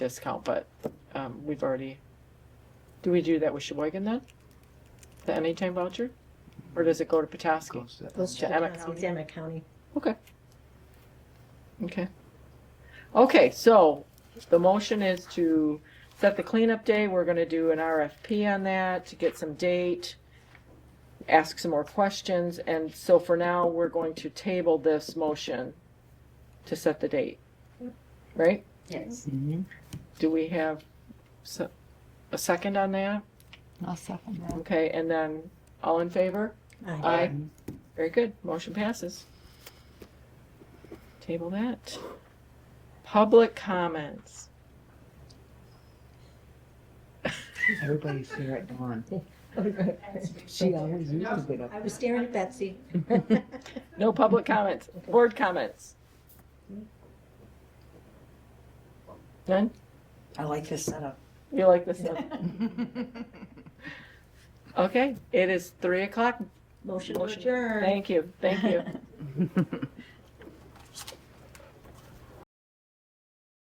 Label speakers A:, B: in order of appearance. A: discount, but, um, we've already, do we do that with Sheboygan then? The anytime voucher? Or does it go to Petoskey?
B: Close that.
C: Goes
A: To
C: to the
A: Emmett
C: county.
A: County.
C: Emmett County.
A: Okay. Okay. Okay, so the motion is to set the cleanup day. We're gonna do an RFP on that to get some date, ask some more questions, and so for now, we're going to table this motion to set the date. Right?
C: Yes.
B: Mhm.
A: Do we have se- a second on that?
D: I'll second that.
A: Okay, and then, all in favor?
C: Aye.
A: Aye. Very good, motion passes. Table that. Public comments.
B: Everybody's here at dawn. She
C: She
B: always used to get up.
C: I was staring at Betsy.
A: No public comments, board comments. None?
D: I like this setup.
A: You like this one? Okay, it is three o'clock.
C: Motion to adjourn.
A: Thank you, thank you.